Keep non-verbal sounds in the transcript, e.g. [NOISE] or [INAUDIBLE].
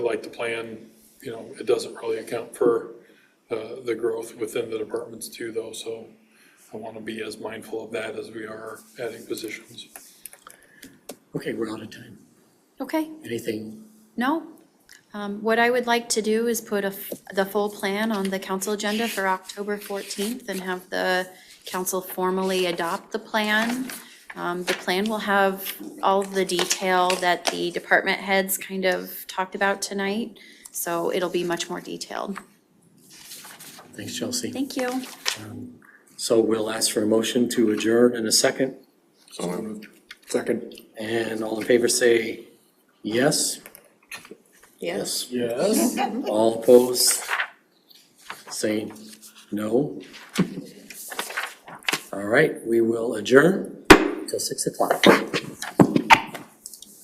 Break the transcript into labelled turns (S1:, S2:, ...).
S1: like the plan, you know, it doesn't really account for uh, the growth within the departments too, though, so I want to be as mindful of that as we are adding positions.
S2: Okay, we're out of time.
S3: Okay,
S2: Anything,
S3: no. Um, What I would like to do is put a f- the full plan on the council agenda for October 14th and have the council formally adopt the plan. Um, The plan will have all of the detail that the department heads kind of talked about tonight, so it'll be much more detailed.
S2: thanks Chelsea.
S3: Thank you.
S2: So we'll ask for a motion to adjourn in a second,
S4: So moved. Second.
S2: and all in favor say yes?
S5: Yes.
S2: Yes. [LAUGHS] All opposed? Say no? All right, we will adjourn till six o'clock.